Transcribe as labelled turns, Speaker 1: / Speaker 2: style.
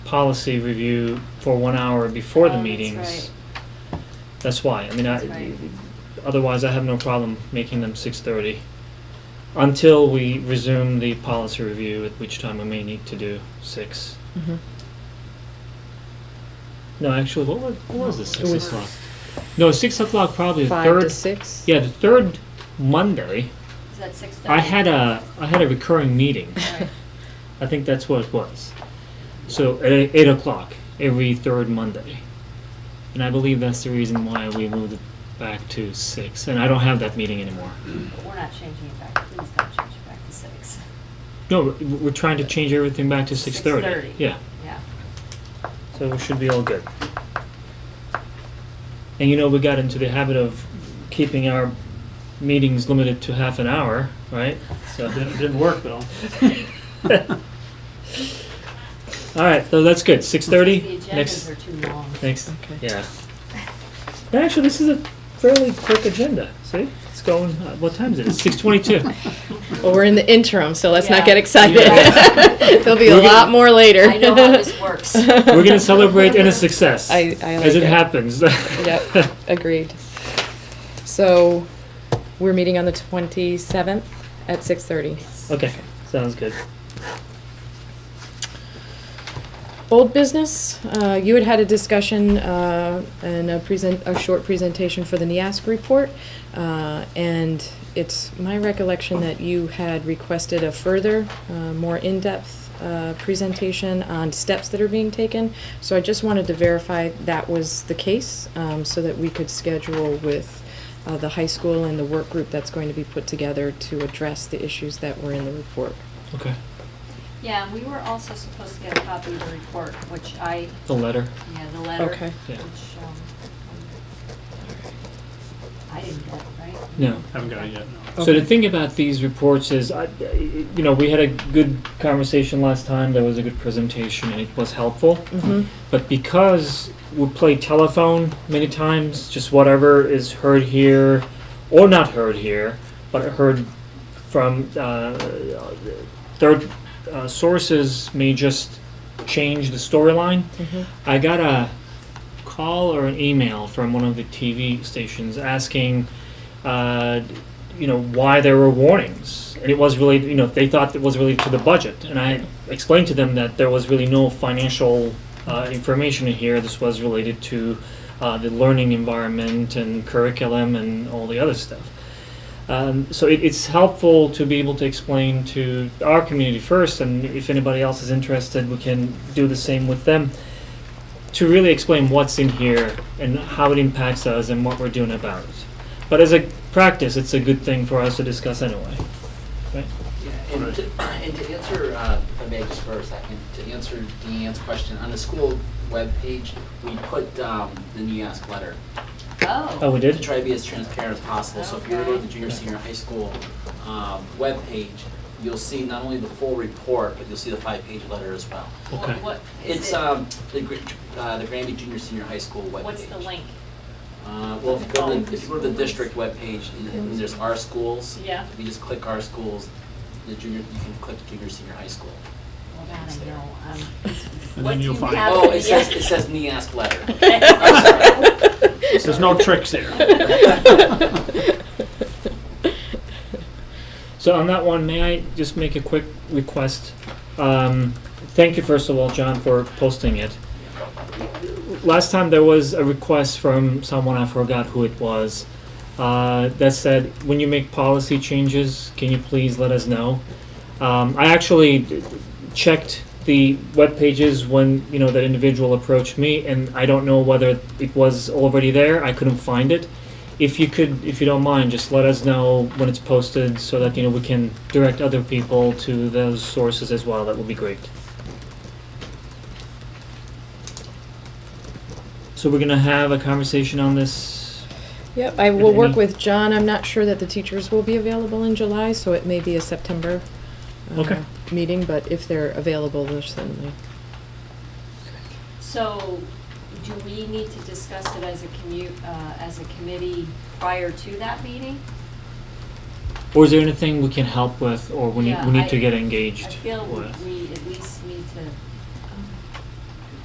Speaker 1: policy review for one hour before
Speaker 2: Oh,
Speaker 1: the
Speaker 2: that's
Speaker 1: meetings.
Speaker 2: right.
Speaker 1: That's why, I mean,
Speaker 2: That's right.
Speaker 1: I, otherwise I have no problem making them six thirty. Until we resume the policy review, at which time we may need to do six.
Speaker 3: Mhm.
Speaker 1: No, actually, what was, what was the six
Speaker 3: was-
Speaker 1: o'clock? No, six o'clock probably the
Speaker 3: Five to
Speaker 1: third,
Speaker 3: six?
Speaker 1: yeah, the third Monday,
Speaker 2: Is that six thirty?
Speaker 1: I had a, I had a recurring meeting.
Speaker 2: Right.
Speaker 1: I think that's what it was. So at eight eight o'clock every third Monday, and I believe that's the reason why we moved it back to six. And I don't have that meeting anymore.
Speaker 2: But We're not changing it back, please don't change it back to six.
Speaker 1: No, we're- we're trying to change everything back to six thirty.
Speaker 2: 6:30.
Speaker 1: Yeah,
Speaker 2: Yeah,
Speaker 1: so we should be all good. And you know, we got into the habit of keeping our meetings limited to half an hour, right? So it didn't- didn't work though. All right, so that's good. Six
Speaker 2: the
Speaker 1: thirty next.
Speaker 2: agendas are too long.
Speaker 1: Thanks.
Speaker 3: Okay.
Speaker 1: Yeah. Actually, this is a fairly quick agenda. See, it's going. Uh, what time is it? It's six twenty-two.
Speaker 3: Well, we're in the interim, so let's
Speaker 2: Yeah.
Speaker 3: not get excited. There'll be a
Speaker 1: We're gonna-
Speaker 3: lot more later.
Speaker 2: I know how this works.
Speaker 1: We're gonna celebrate in a success
Speaker 3: I- I
Speaker 1: as it,
Speaker 3: like it.
Speaker 1: happens.
Speaker 3: Yep, agreed. So, we're meeting on the twenty-seventh at six-thirty.
Speaker 1: okay, sounds good.
Speaker 3: Old business, uh, you had had a discussion, uh, and a present, a short presentation for the NIASC report. Uh, and it's my recollection that you had requested a further, uh, more in-depth, uh, presentation on steps that are being taken. So I just wanted to verify that was the case, um, so that we could schedule with, uh, the high school and the work group that's going to be put together to address the issues that were in the report.
Speaker 1: Okay,
Speaker 2: Yeah, and we were also supposed to get a copy of the report, which I,
Speaker 1: the letter.
Speaker 2: yeah, the letter.
Speaker 3: Okay.
Speaker 1: Yeah.
Speaker 2: Which, um, I didn't get, right?
Speaker 1: No.
Speaker 4: Haven't got it yet, no.
Speaker 1: So the
Speaker 3: Okay.
Speaker 1: thing about these reports is, I, you know, we had a good conversation last time. There was a good presentation, and it was helpful.
Speaker 3: Mm-hmm.
Speaker 1: But because we play telephone many times, just whatever is heard here, or not heard here, but heard from uh, third uh, sources may just change the storyline.
Speaker 3: Mhm.
Speaker 1: I got a call or an email from one of the TV stations asking, uh, you know, why there were warnings. And it was really, you know, they thought it was related to the budget. And I explained to them that there was really no financial uh, information in here. This was related to uh, the learning environment and curriculum and all the other stuff. Um, so it, it's helpful to be able to explain to our community first, and if anybody else is interested, we can do the same with them to really explain what's in here and how it impacts us and what we're doing about it. But as a practice, it's a good thing for us to discuss anyway.
Speaker 5: Yeah, and to, and to answer, uh, if I may just for a second, to answer Deanne's question, on the school webpage, we put, um, the NEASC letter.
Speaker 1: Oh,
Speaker 2: Oh,
Speaker 1: we
Speaker 5: To
Speaker 1: did?
Speaker 5: try to be as transparent as possible, so if you were to go to the junior,
Speaker 1: Okay.
Speaker 5: senior high school, um, webpage, you'll see not only the full report, but you'll see the five-page letter as well.
Speaker 1: Okay.
Speaker 2: what, what is
Speaker 5: It's,
Speaker 2: it,
Speaker 5: um, the, Gr- uh, the Granby Junior, senior high school webpage.
Speaker 2: what's the link?
Speaker 5: Uh, well, if you go to, the- if you go to the district webpage, and- and there's our schools.
Speaker 2: Yeah.
Speaker 5: If you just click our schools, the junior, you can click junior, senior high school.
Speaker 2: Well, that I know, um,
Speaker 4: And
Speaker 2: what
Speaker 4: then
Speaker 2: do you
Speaker 4: you'll find-
Speaker 2: have?
Speaker 5: Oh, it says, it says NEASC letter.
Speaker 4: There's no tricks there.
Speaker 1: So on that one, may I just make a quick request? Um, thank you, first of all, John, for posting it. Last time there was a request from someone, I forgot who it was, uh, that said, when you make policy changes, can you please let us know? Um, I actually d- checked the web pages when, you know, that individual approached me, and I don't know whether it was already there, I couldn't find it if you could, if you don't mind, just let us know when it's posted so that, you know, we can direct other people to those sources as well. That would be great. So we're gonna have a conversation on this.
Speaker 3: Yep, I will work
Speaker 1: Any-
Speaker 3: with John. I'm not sure that the teachers will be available in July, so it may be a September uh,
Speaker 1: Okay.
Speaker 3: meeting, but if they're available, they're certainly.
Speaker 2: So, do we need to discuss it as a commu, uh, as a committee prior to that meeting?
Speaker 1: Or is there anything we can help with or we need,
Speaker 2: Yeah,
Speaker 1: we need
Speaker 2: I-
Speaker 1: to get
Speaker 2: I
Speaker 1: engaged
Speaker 2: feel
Speaker 1: with?
Speaker 2: we at least need to